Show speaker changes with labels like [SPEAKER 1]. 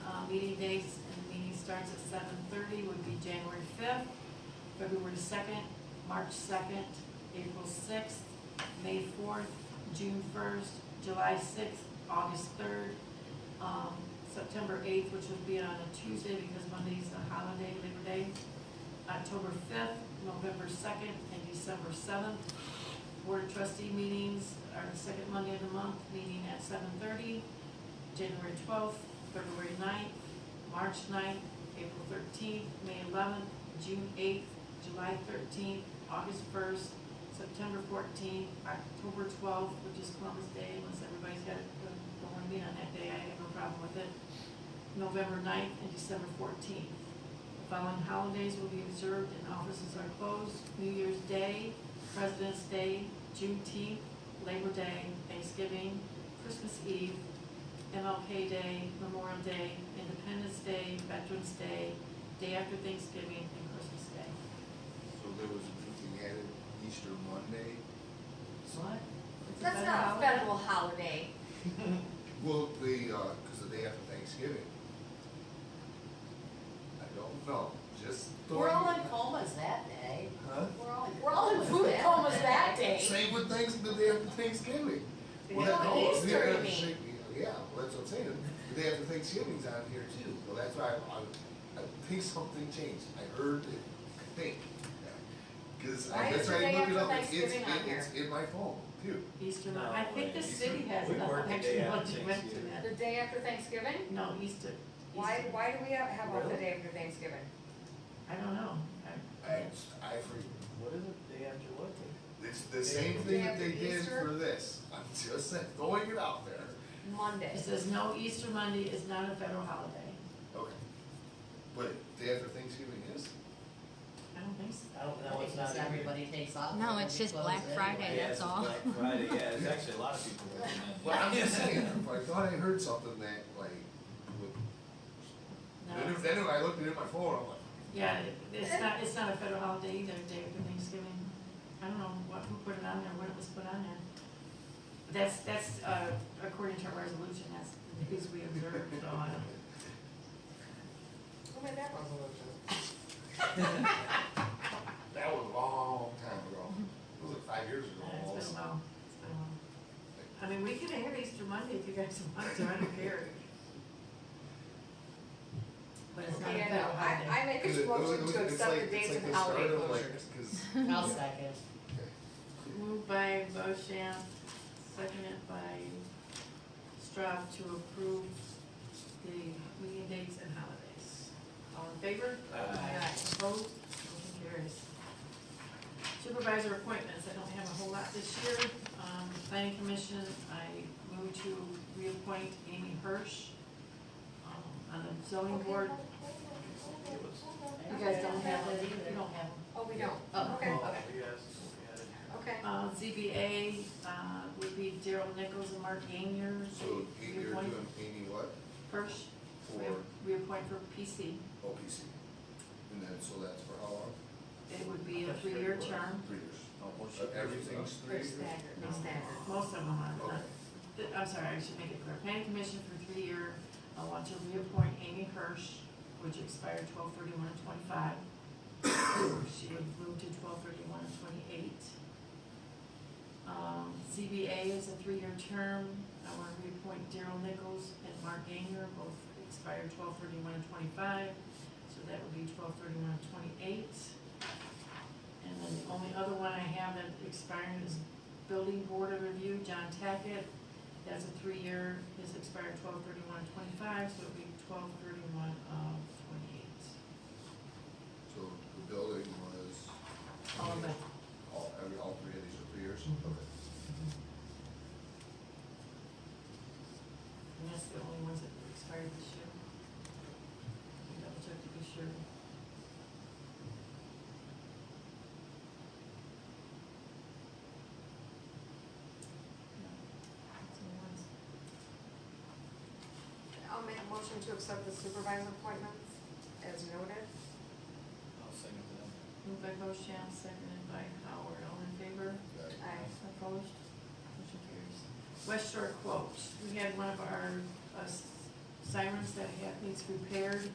[SPEAKER 1] Uh, meeting dates, and the meeting starts at seven thirty, would be January fifth, February second, March second, April sixth, May fourth, June first, July sixth, August third, um, September eighth, which would be on a Tuesday because Monday's a holiday, Labor Day, October fifth, November second, and December seventh. Board of trustee meetings are the second Monday of the month, meeting at seven thirty, January twelfth, February 9th, March 9th, April thirteenth, May eleventh, June eighth, July thirteenth, August first, September fourteenth, October twelfth, which is Columbus Day, unless everybody's got, don't wanna meet on that day, I have no problem with it. November 9th and December fourteenth. The following holidays will be observed and offices are closed, New Year's Day, President's Day, Juneteenth, Labor Day, Thanksgiving, Christmas Eve, MLK Day, Memorial Day, Independence Day, Veterans Day, Day after Thanksgiving, and Christmas Day.
[SPEAKER 2] So there was a meeting added Easter Monday.
[SPEAKER 1] What? It's a
[SPEAKER 3] That's
[SPEAKER 1] federal
[SPEAKER 3] not a
[SPEAKER 1] holiday.
[SPEAKER 3] federal holiday.
[SPEAKER 2] Well, the, uh 'cause the day after Thanksgiving. I don't know, just.
[SPEAKER 3] We're all in
[SPEAKER 2] throwing-
[SPEAKER 3] comas that day.
[SPEAKER 2] Huh?
[SPEAKER 3] We're all, we're all in food comas that day.
[SPEAKER 2] Same with Thanks, the day after Thanksgiving.
[SPEAKER 1] Yeah.
[SPEAKER 2] Well,
[SPEAKER 3] No,
[SPEAKER 2] no,
[SPEAKER 3] Easter,
[SPEAKER 2] the day
[SPEAKER 3] you
[SPEAKER 2] after
[SPEAKER 3] mean.
[SPEAKER 2] Shak- Yeah, well, that's what I'm saying, the day after Thanksgiving's on here too, well, that's why I, I, I think something changed, I heard it, I think. Cause
[SPEAKER 3] Why
[SPEAKER 2] I,
[SPEAKER 3] is
[SPEAKER 2] that's
[SPEAKER 3] the
[SPEAKER 2] why
[SPEAKER 3] day
[SPEAKER 2] I look it
[SPEAKER 3] after
[SPEAKER 2] up, it's, it's,
[SPEAKER 3] Thanksgiving on
[SPEAKER 2] it's in my phone too.
[SPEAKER 1] Easter,
[SPEAKER 4] No,
[SPEAKER 1] I think the
[SPEAKER 4] wait,
[SPEAKER 1] city
[SPEAKER 4] Easter-
[SPEAKER 1] has
[SPEAKER 4] we
[SPEAKER 1] enough,
[SPEAKER 4] work the
[SPEAKER 1] actually,
[SPEAKER 4] day
[SPEAKER 1] went
[SPEAKER 4] after
[SPEAKER 1] to, went to
[SPEAKER 4] Thanksgiving.
[SPEAKER 1] that.
[SPEAKER 3] The day after Thanksgiving?
[SPEAKER 1] No, Easter.
[SPEAKER 3] Why,
[SPEAKER 1] Easter.
[SPEAKER 3] why do we have, have off the
[SPEAKER 4] Really?
[SPEAKER 3] day after Thanksgiving?
[SPEAKER 1] I don't know. I-
[SPEAKER 2] I, I forget.
[SPEAKER 4] What is it, day after what day?
[SPEAKER 2] It's the same
[SPEAKER 4] Yeah.
[SPEAKER 2] thing that
[SPEAKER 3] Yeah,
[SPEAKER 2] they
[SPEAKER 3] for
[SPEAKER 2] did
[SPEAKER 3] Easter.
[SPEAKER 2] for this, I'm just saying, throwing it out there.
[SPEAKER 3] Monday.
[SPEAKER 1] It says no, Easter Monday is not a federal holiday.
[SPEAKER 2] Okay. But day after Thanksgiving is?
[SPEAKER 1] I don't think so.
[SPEAKER 5] I don't know, it's not.
[SPEAKER 6] Because everybody takes off.
[SPEAKER 7] No,
[SPEAKER 6] and
[SPEAKER 7] it's just
[SPEAKER 6] everybody
[SPEAKER 7] Black
[SPEAKER 6] closes
[SPEAKER 7] Friday.
[SPEAKER 6] anyway.
[SPEAKER 7] Yeah, that's
[SPEAKER 4] it's
[SPEAKER 7] all.
[SPEAKER 4] Black Friday, yeah, there's actually a lot of people working that.
[SPEAKER 2] Well, I'm just saying, I thought I heard something that like, would- then,
[SPEAKER 1] No.
[SPEAKER 2] if- then if I looked at it in my phone, I'm like,
[SPEAKER 1] Yeah, it- it's not, it's not a federal holiday either, day after Thanksgiving. I don't know what, who put it on there, when it was put on there. But That's, that's, uh, according to our resolution, that's the days we observe, so I don't.
[SPEAKER 3] Who made that resolution?
[SPEAKER 2] that was a long time ago. It was like five years ago
[SPEAKER 1] Yeah, Uh, It's
[SPEAKER 2] almost.
[SPEAKER 1] been a while, it's been a while. I mean, we could have Easter Monday if you guys want to, I don't care. But it's not a
[SPEAKER 3] Yeah,
[SPEAKER 1] federal
[SPEAKER 3] no, I,
[SPEAKER 1] holiday.
[SPEAKER 3] I make
[SPEAKER 2] Cause
[SPEAKER 3] a
[SPEAKER 2] it- oh, it
[SPEAKER 3] motion
[SPEAKER 2] was-
[SPEAKER 3] to
[SPEAKER 2] it's
[SPEAKER 3] accept
[SPEAKER 2] like-
[SPEAKER 3] the
[SPEAKER 2] it's
[SPEAKER 3] dates
[SPEAKER 2] like
[SPEAKER 3] and
[SPEAKER 2] the start
[SPEAKER 3] holiday
[SPEAKER 2] of, like,
[SPEAKER 3] closures.
[SPEAKER 2] 'cause-
[SPEAKER 6] I'll second.
[SPEAKER 1] Moved by Bochamp, seconded by Straub to approve the meeting dates and holidays. All in favor?
[SPEAKER 4] Aye.
[SPEAKER 1] Opposed? Motion carries. Supervisor appointments, I don't have a whole lot this year. Um, planning commission, I move to reappoint Amy Hirsch, um, on the zoning board. You guys don't have that either, you don't have them.
[SPEAKER 3] Oh, we don't,
[SPEAKER 6] Oh.
[SPEAKER 3] okay,
[SPEAKER 4] Oh,
[SPEAKER 3] okay,
[SPEAKER 4] yes, we had it.
[SPEAKER 3] okay.
[SPEAKER 1] Uh, ZBA, uh, would be Daryl Nichols and Mark Gainer.
[SPEAKER 2] So you're
[SPEAKER 1] Reappoint
[SPEAKER 2] doing Amy what?
[SPEAKER 1] First, we,
[SPEAKER 2] For
[SPEAKER 1] we appoint for PC.
[SPEAKER 2] OPC. And then, so that's for how long?
[SPEAKER 1] It would be a three-year term.
[SPEAKER 2] Three years.
[SPEAKER 4] Oh, well, she-
[SPEAKER 2] Uh, Everything's three years?
[SPEAKER 3] They're staggered, they're staggered.
[SPEAKER 1] Most of them are,
[SPEAKER 2] Okay.
[SPEAKER 1] not- th- I'm sorry, I should make it clear. Planning Commission for three year, I want to reappoint Amy Hirsch, which expired twelve thirty-one and twenty-five. She would move to twelve thirty-one and twenty-eight. Um, ZBA is a three-year term. I want to reappoint Daryl Nichols and Mark Gainer, both expired twelve thirty-one and twenty-five. So that would be twelve thirty-one and twenty-eight. And then the only other one I have that expiring is Building Board of Review, John Tackett. That's a three-year, his expired twelve thirty-one twenty-five, so it'll be twelve thirty-one of twenty-eight.
[SPEAKER 2] So the building was.
[SPEAKER 1] All of it. Mm-hmm.
[SPEAKER 2] All, every, all three of these are three years? Okay.
[SPEAKER 1] And that's the only ones that expired this year. We double check to be sure. That's the only ones.
[SPEAKER 3] I'll make a motion to accept the supervisor appointments as noted.
[SPEAKER 4] I'll second that.
[SPEAKER 1] Moved by Bochamp, seconded by Howard, all in favor?
[SPEAKER 2] That-
[SPEAKER 3] Aye.
[SPEAKER 1] Opposed? Motion carries. West Shore quote, we had one of our, uh, s- sirens that have needs repaired